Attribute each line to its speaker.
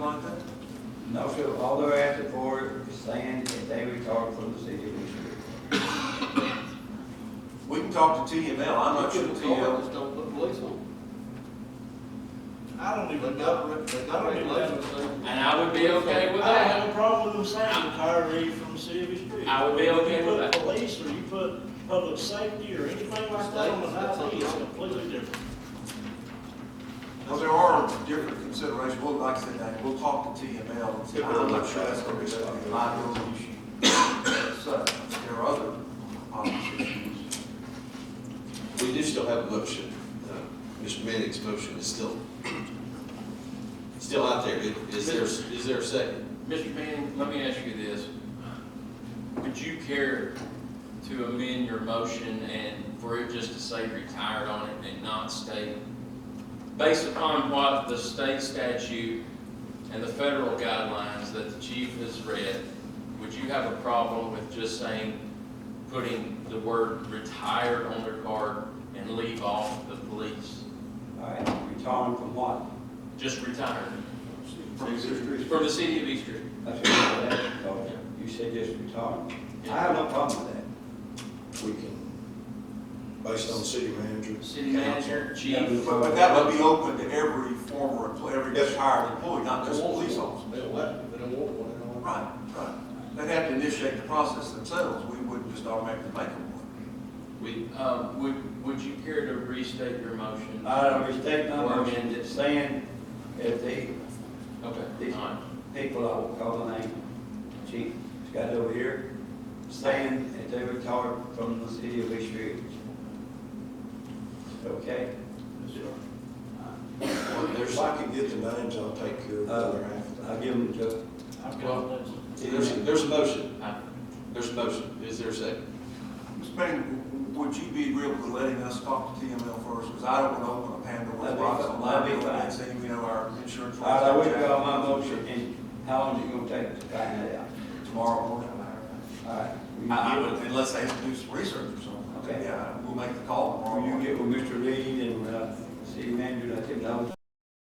Speaker 1: No, sir, all they're asking for is saying that they retired from the city of East
Speaker 2: We can talk to TML, I'm not sure TML,
Speaker 3: Just don't put police on.
Speaker 4: I don't even know, they don't even know.
Speaker 3: And I would be okay with
Speaker 4: I have
Speaker 3: that.
Speaker 4: no problem with them saying retiree from the city of East Ridge.
Speaker 3: I would be okay with that.
Speaker 4: You put police or you put public safety or anything like that on the ID, it's completely different.
Speaker 2: well, there are different considerations, well, like I said, that, we'll talk to TML and see, I'm not sure that's gonna be a liability issue. So, there are other options.
Speaker 5: We do still have a motion. Uh, Mr. Manning's motion is still, still out there. Is- Is there, is there a second?
Speaker 3: Mr. Manning, let me ask you this. Would you care to amend your motion and for it just to say retired on it and not state? Based upon what the state statute and the federal guidelines that the chief has read, would you have a problem with just saying, putting the word retired on their card and leave off the police?
Speaker 1: All right, retiring from what?
Speaker 3: Just retired
Speaker 2: From existing.
Speaker 3: from the city of East Ridge?
Speaker 1: That's what you're asking for. You said just retiring. I have no problem with that.
Speaker 5: We can, based on city manager.
Speaker 3: City manager, chief.
Speaker 2: But, but that would be open to every former, employee, every retired employee, not just police officers.
Speaker 6: They don't like it, they don't want one, they don't want
Speaker 2: Right, right. They'd have to initiate the process themselves, we wouldn't just automatically make them one.
Speaker 3: We, uh, would, would you care to restate your motion?
Speaker 1: I respect my
Speaker 3: Or
Speaker 1: motion,
Speaker 3: amend
Speaker 1: just
Speaker 3: it.
Speaker 1: saying if they,
Speaker 3: Okay, all right.
Speaker 1: people, I will call the name, chief, it's got it over here, saying that they retired from the city of East Ridge. Okay?
Speaker 5: There's, I can get the names, I'll take care of the other half.
Speaker 1: I'll Uh, give them to.
Speaker 4: I've got that.
Speaker 5: Uh, There's, there's a motion.
Speaker 3: Aye.
Speaker 5: There's a motion. Is there a second?
Speaker 2: Mr. Payne, w- w- would you be agreeable to letting us talk to TML first, because I don't want to open a Pandora's
Speaker 1: That'd be
Speaker 2: box
Speaker 1: fine.
Speaker 2: on
Speaker 1: That'd be
Speaker 2: liability
Speaker 1: fine.
Speaker 2: and say, you know, our insurance.
Speaker 1: All right, I withdraw my motion, and how long is it gonna take to find that out?
Speaker 2: Tomorrow morning.
Speaker 1: All right. will you
Speaker 2: I, I
Speaker 1: get-
Speaker 2: would, unless they have to do some research or something.
Speaker 1: Okay.
Speaker 2: Yeah, we'll make the call tomorrow
Speaker 1: Will you
Speaker 2: morning.
Speaker 1: get with Mr. Reed and, uh, city manager, let them know?